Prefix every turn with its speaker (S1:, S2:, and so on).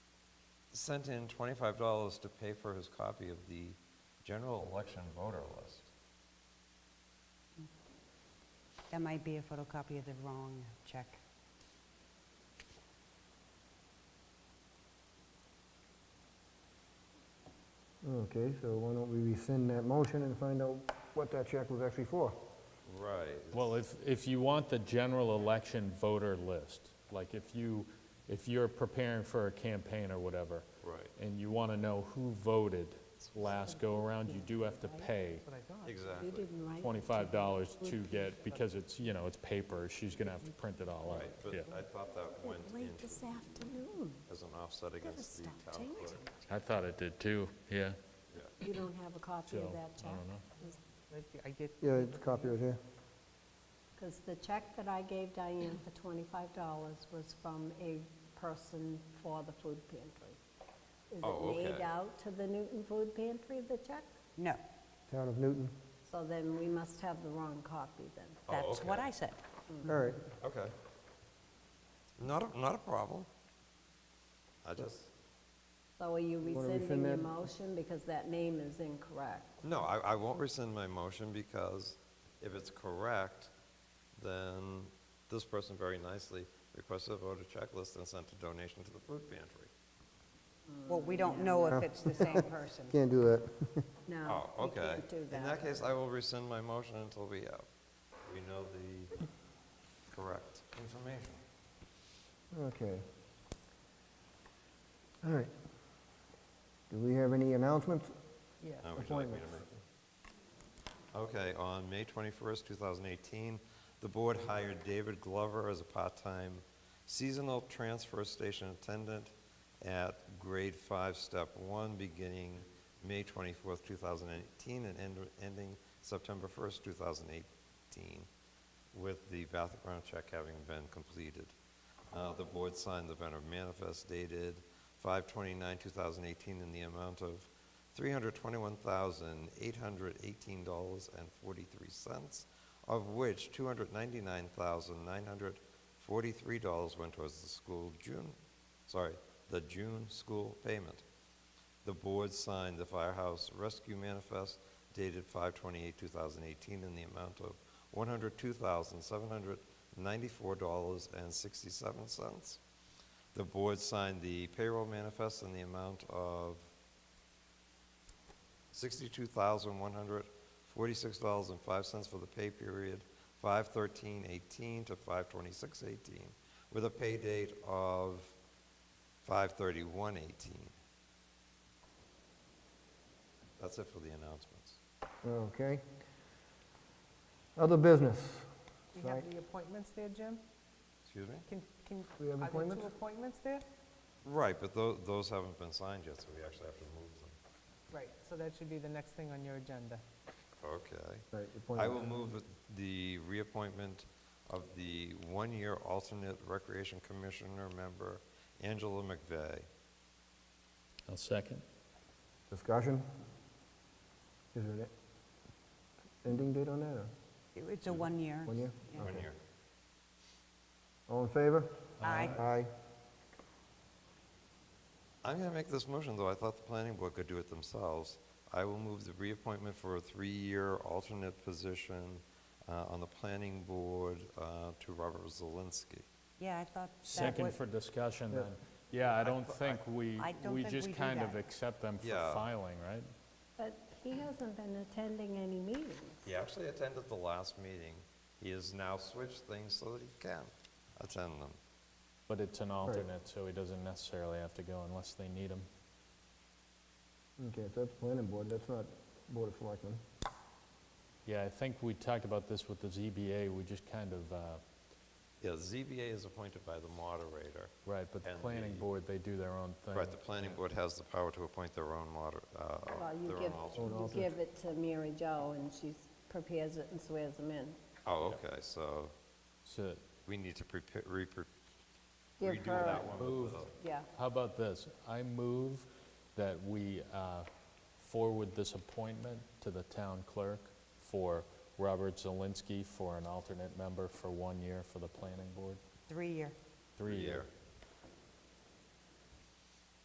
S1: sent in twenty-five dollars to pay for his copy of the general election voter list.
S2: That might be a photocopy of the wrong check.
S3: Okay, so why don't we rescind that motion and find out what that check was actually for?
S1: Right.
S4: Well, if, if you want the general election voter list, like if you, if you're preparing for a campaign or whatever,
S1: Right.
S4: and you want to know who voted last go-around, you do have to pay
S5: You
S1: Exactly.
S5: didn't write.
S4: $25 to get, because it's, you know, it's paper, she's going to have to print it all out.
S1: Right, but
S4: Yeah.
S1: I thought that went
S5: Late
S1: into,
S5: this afternoon.
S1: as an offset against the
S5: stop
S1: town
S5: changing.
S1: clerk.
S4: I thought it did too, yeah.
S5: You don't have a
S4: So,
S5: copy of that
S4: I
S5: check?
S4: don't know.
S6: I get,
S3: Yeah, it's copy right here.
S5: Because the check that I gave Diane for twenty-five dollars was from a person for the food pantry. Is
S1: Oh,
S5: it made
S1: okay.
S5: out to the Newton Food Pantry, the check?
S2: No,
S3: Town of Newton.
S5: So then we must have the wrong copy then.
S1: Oh,
S2: that's what
S1: okay.
S2: I said.
S3: All right,
S1: Okay. Not, a not a problem. I just,
S5: So are you
S3: Wanna rescind
S5: rescinding your
S3: that?
S5: motion because that name is incorrect?
S1: no, I, I won't rescind my motion because if it's correct, then this person very nicely requested a voter checklist and sent a donation to the food pantry.
S2: Well, we
S3: Mm.
S2: don't know if it's the same person.
S3: can't do that.
S5: No,
S1: Oh,
S5: you
S1: okay.
S5: can't do
S1: In that
S5: that.
S1: case, I will rescind my motion until we have, we know the correct information.
S3: Okay. All right. Do we have any announcements?
S6: yeah.
S1: Now, would you like me to make-
S3: Appointments.
S1: Okay, on May 21st, 2018, the board hired David Glover as a part-time seasonal transfer station attendant at grade five, step one, beginning May 24th, 2018, and end- ending September 1st, 2018, with the background check having been completed. Uh, The board signed the vendor manifest dated 5/29/2018 in the amount of $321,818.43, of which $299,943 went towards the school June, sorry, the June school payment. The board signed the firehouse rescue manifest dated 5/28/2018 in the amount of $102,794.67. The board signed the payroll manifest in the amount of $62,146.05 for the pay period 5/13/18 to 5/26/18, with a pay date of 5/31/18. That's it for the announcements.
S3: Okay. Other business.
S6: We
S3: Sorry.
S6: have the appointments there, Jim?
S1: Excuse me?
S6: Can, can,
S3: We have
S6: are there
S3: appointments?
S6: two appointments there?
S1: Right, but tho- those haven't been signed yet, so we actually have to move them.
S6: Right, so that should be the next thing on your agenda.
S1: Okay.
S3: Right,
S1: I will
S3: appointments.
S1: move with the reappointment of the one-year alternate Recreation Commissioner member Angela McVeigh.
S4: I'll second.
S3: Discussion? Is there an ending date on that, or
S2: It's a one-year.
S3: one year?
S2: Yeah.
S1: One year.
S3: All in favor?
S2: Aye.
S3: Aye.
S1: I'm going to make this motion, though I thought the planning board could do it themselves. I will move the reappointment for a three-year alternate position uh, on the planning board uh, to Robert Zelinski.
S2: Yeah, I thought that
S4: Second
S2: was,
S4: for discussion then. Yeah, I don't think we,
S2: I don't
S4: we
S2: think we
S4: just
S2: do
S4: kind of
S2: that.
S4: accept them for
S1: Yeah.
S4: filing, right?
S5: But he hasn't been attending any meetings.
S1: He actually attended the last meeting. He has now switched things so that he can attend them.
S4: But it's an alternate, so he doesn't necessarily have to go unless they need him.
S3: Okay, so that's planning board, that's not board of selectmen.
S4: Yeah, I think we talked about this with the ZBA, we just kind of, uh,
S1: Yeah, ZBA is appointed by the moderator.
S4: right, but the
S1: And
S4: planning
S1: the-
S4: board, they do their own thing.
S1: Right, the planning board has the power to appoint their own moder, uh,
S5: Well, you
S1: their own
S5: give,
S1: alternate.
S5: you give it to Mary Jo and she prepares it and swears them in.
S1: Oh, okay, so
S4: So,
S1: we need to prepare, re- pre-
S5: Give
S1: redo
S5: her-
S1: that one. with the-
S5: Yeah,
S4: how about this? I move that we uh, forward this appointment to the town clerk for Robert Zelinski for an alternate member for one year for the planning board,
S2: three-year.
S4: three year.
S1: Three-year.